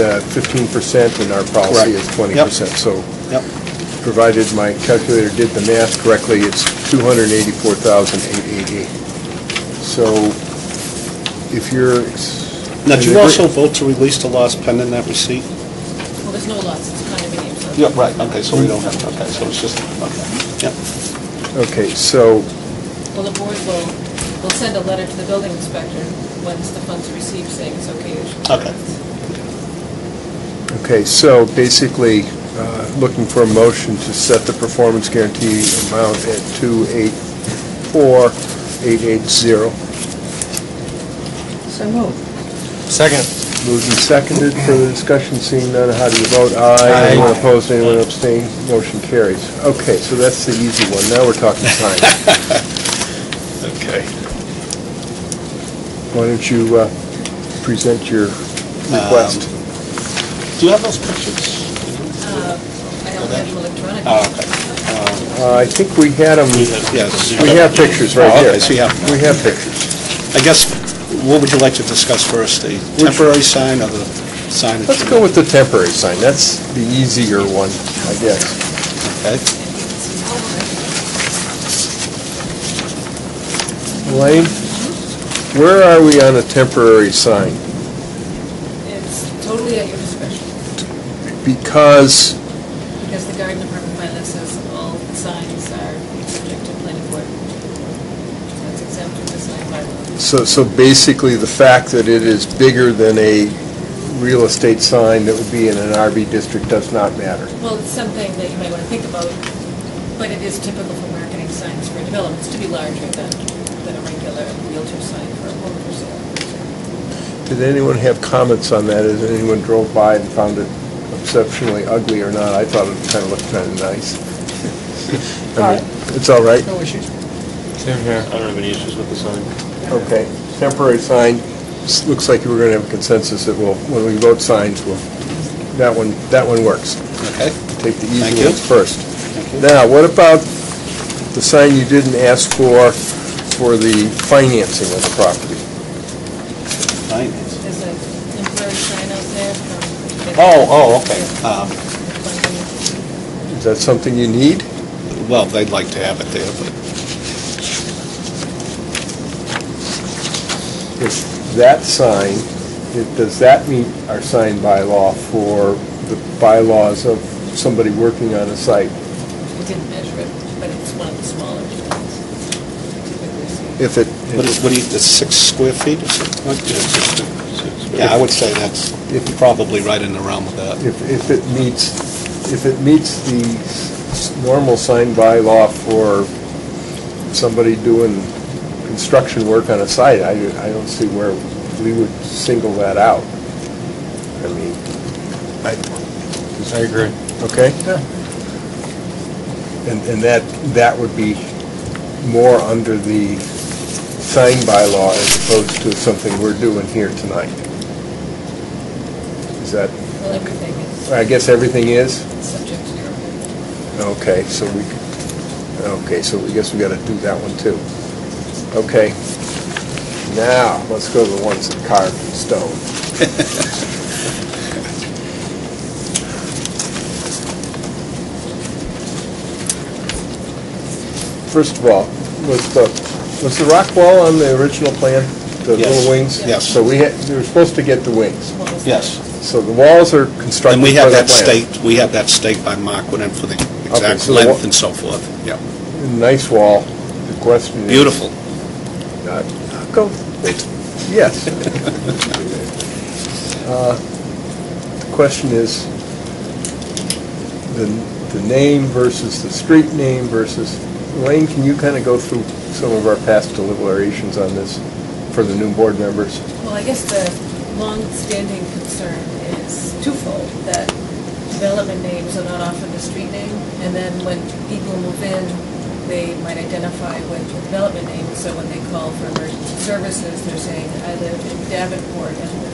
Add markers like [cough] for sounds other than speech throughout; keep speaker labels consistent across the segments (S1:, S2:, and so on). S1: uh, fifteen percent and our policy is twenty
S2: Yep.
S1: percent. So
S2: Yep.
S1: provided my calculator did the math correctly, it's two hundred and eighty-four thousand eight eighty. So if you're.
S2: Now, did you also vote to release the loss pending that receipt?
S3: Well, there's no lots, it's condominium, so.
S2: Yeah, right, okay, so we don't have, okay, so it's just, okay, yeah.
S1: Okay, so,
S3: Well, the board will, will send a letter to the building inspector once the funds are received, saying it's okay. you should-
S2: Okay.
S1: okay, so basically, uh, looking for a motion to set the performance guarantee amount at two eight four eight eight zero.
S4: So moved.
S5: Second.
S1: Moved and seconded, further discussion, seeing none, how do you vote? Aye.
S5: Aye.
S1: Anyone opposed, anyone abstained, motion carries. Okay, so that's the easy one, now we're talking time.
S5: [laughs]
S2: Okay.
S1: Why don't you uh, present your request?
S5: Um,
S2: Do you have those pictures?
S3: I don't have them electronically.
S2: Oh, okay.
S1: Uh, I think we had them,
S2: Yes.
S1: we have pictures right
S2: Oh,
S1: here.
S2: okay, so you have-
S1: We have pictures.
S2: I guess, what would you like to discuss first, the temporary sign or the sign?
S1: Let's go with the temporary sign, that's the easier one, I guess.
S2: Okay.
S1: Elaine, where are we on a temporary sign?
S3: It's totally at your discretion,
S1: Because
S3: because the garden department bylaw says all signs are subject to planning board. That's exempt from the sign bylaw.
S1: So, so basically, the fact that it is bigger than a real estate sign that would be in an RB district does not matter.
S3: Well, it's something that you might want to think about, but it is typical for marketing signs for developments to be larger than, than a regular realtor sign for a home for sale.
S1: Did anyone have comments on that? Has anyone drove by and found it exceptionally ugly or not? I thought it kind of looked kind of nice. I mean, It's all right?
S4: No issues.
S5: Same here.
S6: I don't have any issues with the sign.
S1: Okay. Temporary sign, s- looks like we're going to have a consensus that we'll, when we vote signs, we'll, that one, that one works.
S2: Okay.
S1: take the
S2: Thank
S1: easy
S2: you.
S1: ones first.
S2: Thank you.
S1: Now, what about the sign you didn't ask for, for the financing of the property?
S2: Finance.
S3: There's a temporary sign out there from.
S2: Oh, oh, okay.
S3: okay.
S1: Is that something you need?
S2: Well, they'd like to have it there, but
S1: If that sign, it- does that meet our sign bylaw for the bylaws of somebody working on a site?
S3: We didn't measure it, but it's one of the smaller signs.
S1: If it,
S2: what is, what do you, it's six square feet or something like
S6: Yeah,
S2: that?
S6: it's just a- it's a-
S2: Yeah, I would say that's probably right in the realm of that.
S1: if if it meets, if it meets the s- normal sign bylaw for somebody doing construction work on a site, I I don't see where we would single that out. I mean, I,
S5: I agree.
S1: okay? And and that, that would be more under the sign bylaw as opposed to something we're doing here tonight. Is that,
S3: Well, everything is
S1: I guess everything is?
S3: subject to your approval.
S1: Okay, so we, okay, so we guess we gotta do that one too. Okay. Now, let's go to the ones that carved in stone. [laughs] First of all, was the, was the rock wall on the original plan? The
S2: Yes.
S1: little wings?
S2: Yes.
S1: So we had, we were supposed to get the wings.
S3: Small sign.
S2: Yes.
S1: So the walls are constructed
S2: And we
S1: per
S2: have
S1: the
S2: that
S1: plan.
S2: staked, we have that staked by Mark Wooden for the exact
S1: so the wa-
S2: length and so forth. Yeah.
S1: Nice wall. The question is...
S2: Beautiful.
S1: Uh, Go, yes. Uh, The question is, the, the name versus the street name versus, Elaine, can you kind of go through some of our past deliberations on this for the new board members?
S3: Well, I guess the long-standing concern is twofold, that development names are not often the street name, and then when people move in, they might identify with the development name, so when they call for emergency services, they're saying, I live in Davenport, and the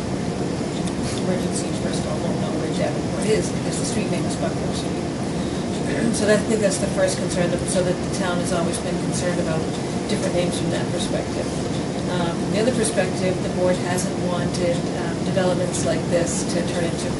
S3: emergency personnel won't know where Davenport is, because the street name is Buckner Street. So that- I think that's the first concern, that- so that the town has always been concerned about different names from that perspective. Um, The other perspective, the board hasn't wanted um, developments like this to turn into